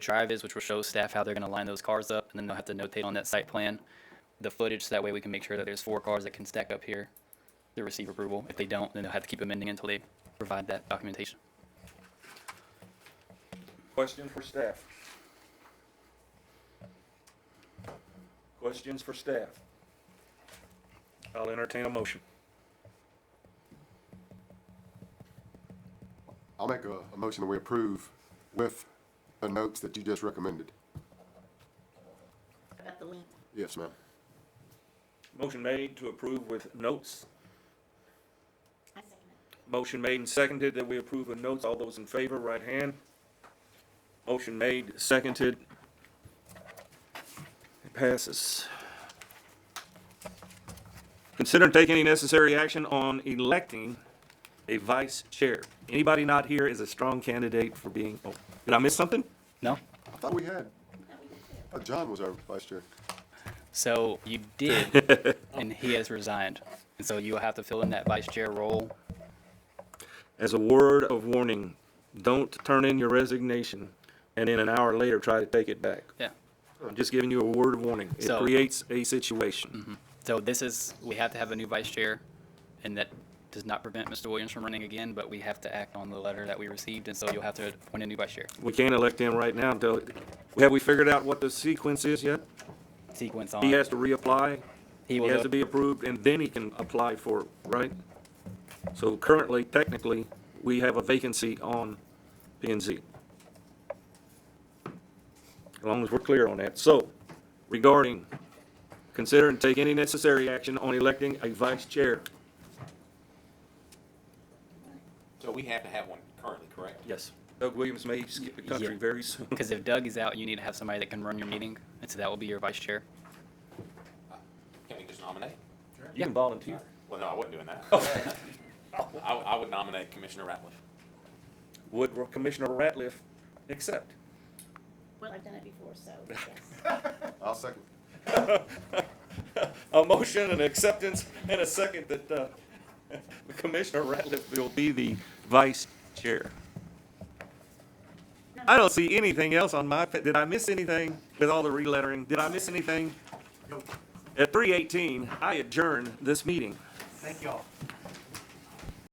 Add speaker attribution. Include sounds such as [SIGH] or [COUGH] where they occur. Speaker 1: drive is, which will show staff how they're going to line those cars up, and then they'll have to notate on that site plan the footage, so that way we can make sure that there's four cars that can stack up here to receive approval. If they don't, then they'll have to keep amending until they provide that documentation.
Speaker 2: Questions for staff? Questions for staff?
Speaker 3: I'll entertain a motion.
Speaker 4: I'll make a, a motion that we approve with the notes that you just recommended.
Speaker 5: About the link.
Speaker 4: Yes, ma'am.
Speaker 3: Motion made to approve with notes.
Speaker 5: I second it.
Speaker 3: Motion made and seconded that we approve with notes. All those in favor, right hand. Motion made, seconded. It passes. Consider and take any necessary action on electing a vice chair. Anybody not here is a strong candidate for being, oh, did I miss something?
Speaker 1: No?
Speaker 4: I thought we had, I thought John was our vice chair.
Speaker 1: So you did, and he has resigned. And so you will have to fill in that vice chair role.
Speaker 3: As a word of warning, don't turn in your resignation and then an hour later try to take it back.
Speaker 1: Yeah.
Speaker 3: I'm just giving you a word of warning. It
Speaker 1: So-
Speaker 3: creates a situation.
Speaker 1: So this is, we have to have a new vice chair, and that does not prevent Mr. Williams from running again, but we have to act on the letter that we received, and so you'll have to appoint a new vice chair.
Speaker 3: We can't elect him right now until, have we figured out what the sequence is yet?
Speaker 1: Sequence on.
Speaker 3: He has to reapply,
Speaker 1: He
Speaker 3: he
Speaker 1: will
Speaker 3: has
Speaker 1: go-
Speaker 3: to be approved, and then he can apply for, it, right? So currently, technically, we have a vacancy on P and Z. As long as we're clear on that. So regarding, consider and take any necessary action on electing a vice chair.
Speaker 6: So we have to have one currently, correct?
Speaker 3: Yes. Doug Williams may skip the country
Speaker 1: Yeah.
Speaker 3: very soon.
Speaker 1: Because if Doug is out, you need to have somebody that can run your meeting, and so that will be your vice chair.
Speaker 6: Can we just nominate?
Speaker 3: You [LAUGHS] can volunteer.
Speaker 6: Well, no, I wasn't doing that. I, I would nominate Commissioner Ratliff.
Speaker 3: Would Commissioner Ratliff accept?
Speaker 5: Well, I've done it before, so yes.
Speaker 4: I'll second.
Speaker 3: a motion and acceptance and a second that uh, [LAUGHS] Commissioner Ratliff will be the vice chair. I don't see anything else on my, pa- did I miss anything with all the relettering? Did I miss anything? At 3:18, I adjourn this meeting.
Speaker 7: Thank y'all.